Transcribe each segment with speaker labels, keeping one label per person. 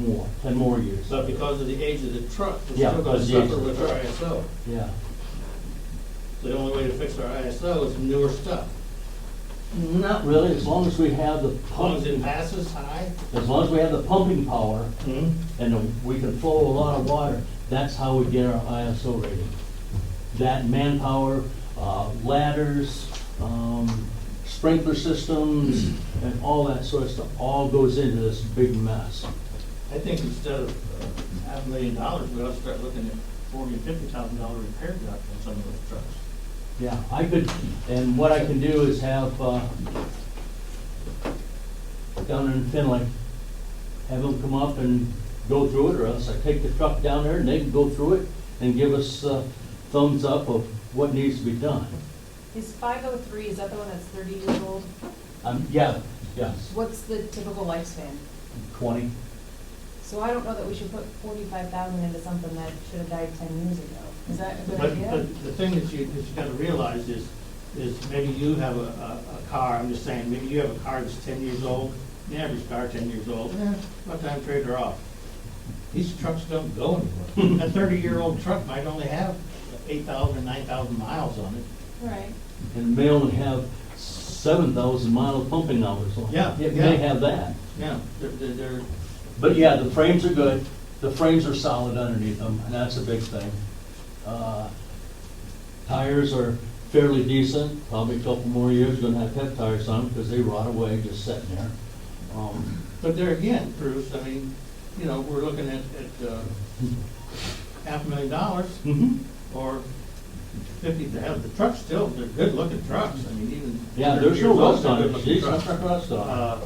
Speaker 1: more, ten more years.
Speaker 2: But because of the age of the truck, we're
Speaker 1: Yeah,
Speaker 2: still gonna
Speaker 1: because the age
Speaker 2: suffer
Speaker 1: of the
Speaker 2: with our ISO.
Speaker 1: Yeah,
Speaker 2: So The only way to fix our ISO is newer stuff.
Speaker 1: not really, as long as we have the
Speaker 2: As long
Speaker 1: pump,
Speaker 2: as it passes high.
Speaker 1: as long as we have the pumping power
Speaker 2: Hmm.
Speaker 1: and the- we can flow a lot of water, that's how we get our ISO rating. That manpower, uh, ladders, um, sprinkler systems, and all that sort of stuff, all goes into this big mess.
Speaker 2: I think instead of uh, half a million dollars, we ought to start looking at forty or fifty thousand dollar repair job on some of those trucks.
Speaker 1: Yeah, I could, and what I can do is have, uh, down in Finley, have them come up and go through it, or else I take the truck down there and they can go through it and give us uh, thumbs up of what needs to be done.
Speaker 3: Is five oh three, is that the one that's thirty years old?
Speaker 1: Um, yeah, yes,
Speaker 3: What's the typical lifespan?
Speaker 1: twenty,
Speaker 3: So I don't know that we should put forty-five thousand into something that should have died ten years ago. Is that a good
Speaker 2: But,
Speaker 3: idea?
Speaker 2: but the thing that you, that you gotta realize is, is maybe you have a, a, a car, I'm just saying, maybe you have a car that's ten years old, the average car ten years old, eh, by the time trade her off. These trucks don't go anywhere. A thirty-year-old truck might only have eight thousand or nine thousand miles on it.
Speaker 3: Right.
Speaker 1: and may only have seven thousand mile pumping hours on it.
Speaker 2: Yeah,
Speaker 1: It may
Speaker 2: yeah.
Speaker 1: have that.
Speaker 2: Yeah, they're, they're, they're-
Speaker 1: But yeah, the frames are good, the frames are solid underneath them, and that's a big thing. Uh, Tires are fairly decent, probably a couple more years, gonna have pep tires on them, because they rot away just sitting there. Um,
Speaker 2: but there again, Bruce, I mean, you know, we're looking at, at, uh, half a million dollars.
Speaker 1: mhm.
Speaker 2: or fifty to have, the trucks still, they're good-looking trucks, I mean, even.
Speaker 1: Yeah, there's no
Speaker 2: 30 years old,
Speaker 1: rust on
Speaker 2: they're
Speaker 1: it,
Speaker 2: good-looking
Speaker 1: geez,
Speaker 2: trucks.
Speaker 1: not rust on it.
Speaker 2: Uh,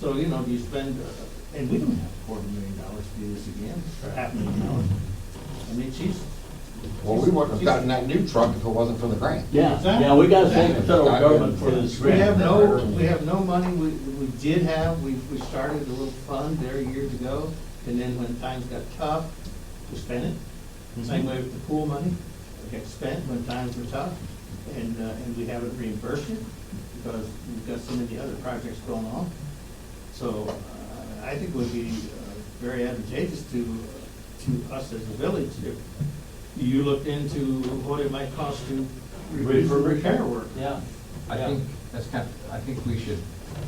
Speaker 2: So, you know, you spend, uh, and we don't have a quarter million dollars to do this again, or half a million dollars. I mean, she's,
Speaker 4: Well, we wouldn't have gotten that new truck if it wasn't for the grant.
Speaker 1: Yeah,
Speaker 2: that-
Speaker 1: yeah, we gotta thank the federal
Speaker 4: Yeah.
Speaker 1: government for this
Speaker 2: we have
Speaker 1: grant.
Speaker 2: no, we have no money, we, we did have, we, we started a little fund there years ago, and then when times got tough, we spent it. Same way with the pool money, it gets spent when times are tough, and, uh, and we haven't reimbursed it because we've got so many other projects going on. So uh, I think it would be uh, very advantageous to, to us as a village if you looked into what it might cost to re- for repair work.
Speaker 1: Yeah,
Speaker 5: I
Speaker 1: Yeah.
Speaker 5: think that's kind of, I think we should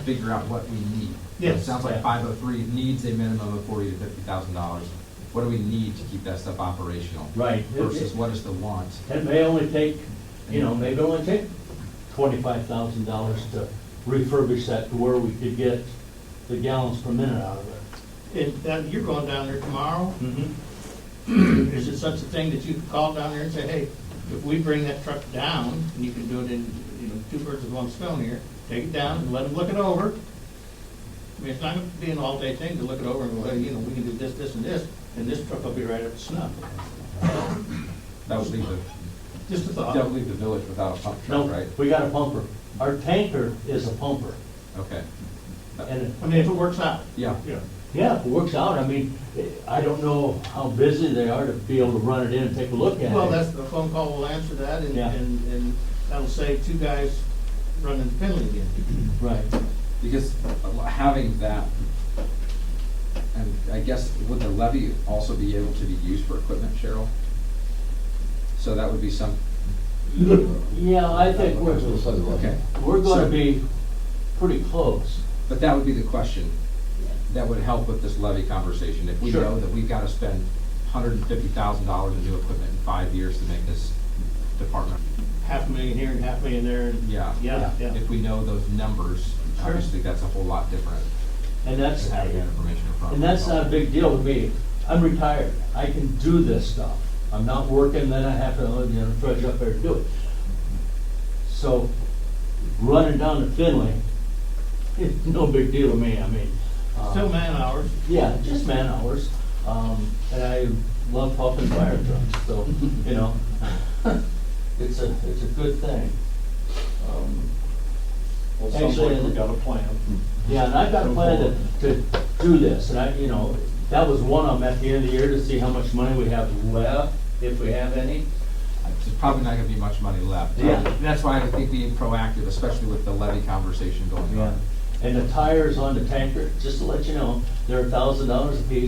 Speaker 5: figure out what we need.
Speaker 2: Yes.
Speaker 5: It sounds
Speaker 1: Yeah.
Speaker 5: like five oh three needs a minimum of forty to fifty thousand dollars. What do we need to keep that stuff operational?
Speaker 1: right. It-
Speaker 5: Versus what is the want?
Speaker 1: It may only take, you know, maybe only take twenty-five thousand dollars to refurbish that to where we could get the gallons per minute out of it.
Speaker 2: And that, you're going down there tomorrow,
Speaker 1: Mm-hmm.
Speaker 2: is it such a thing that you could call down there and say, hey, if we bring that truck down, and you can do it in, you know, two birds with one stone here, take it down and let them look it over. I mean, it's not gonna be an all-day thing to look it over and go, hey, you know, we can do this, this, and this, and this truck will be right up to snuff.
Speaker 5: That would leave the,
Speaker 2: Just a
Speaker 5: that would
Speaker 2: thought.
Speaker 5: leave the village without a pump truck,
Speaker 1: Uh, No,
Speaker 5: right?
Speaker 1: we got a pumper. Our tanker is a pumper.
Speaker 5: Okay.
Speaker 1: And, it-
Speaker 2: I mean, if it works out,
Speaker 5: Yeah,
Speaker 2: you know.
Speaker 1: yeah, if it works out, I mean, I don't know how busy they are to be able to run it in and take a look at it.
Speaker 2: Well, that's, the phone call will answer that, and,
Speaker 1: Yeah.
Speaker 2: and, and that'll save two guys running Finley again.
Speaker 1: Right,
Speaker 5: because a lo- having that, and I guess, would the levy also be able to be used for equipment, Cheryl? So that would be some,
Speaker 1: yeah, I think we're,
Speaker 5: okay.
Speaker 1: we're gonna
Speaker 5: So-
Speaker 1: be pretty close.
Speaker 5: But that would be the question that would help with this levy conversation. If we
Speaker 1: Sure.
Speaker 5: know that we've got to spend hundred and fifty thousand dollars in new equipment in five years to make this department.
Speaker 2: Half a million here and half a million there, and,
Speaker 5: Yeah.
Speaker 2: yeah, yeah.
Speaker 5: If we know those numbers,
Speaker 2: Sure.
Speaker 5: obviously that's a whole lot different
Speaker 1: And
Speaker 5: than
Speaker 1: that's,
Speaker 5: having that information in front of us.
Speaker 1: and that's not a big deal to me. I'm retired. I can do this stuff. I'm not working, then I have to, you know, trudge up there to do it. So running down to Finley, it's no big deal to me, I mean. uh,
Speaker 2: Still man hours.
Speaker 1: Yeah, just man hours. Um, and I love pumping fire trucks, so, you know, it's a, it's a good thing. Um,
Speaker 6: Well,
Speaker 1: Actually,
Speaker 6: sounds like
Speaker 1: and-
Speaker 6: we got a plan.
Speaker 1: Yeah, and I've got a plan to, to do this, and I, you know, that was one of them at the end of the year to see how much money we have left, if we have any.
Speaker 5: There's probably not gonna be much money left. Um,
Speaker 1: Yeah.
Speaker 5: That's why I think being proactive, especially with the levy conversation going on.
Speaker 1: And the tires on the tanker, just to let you know, they're a thousand dollars a piece.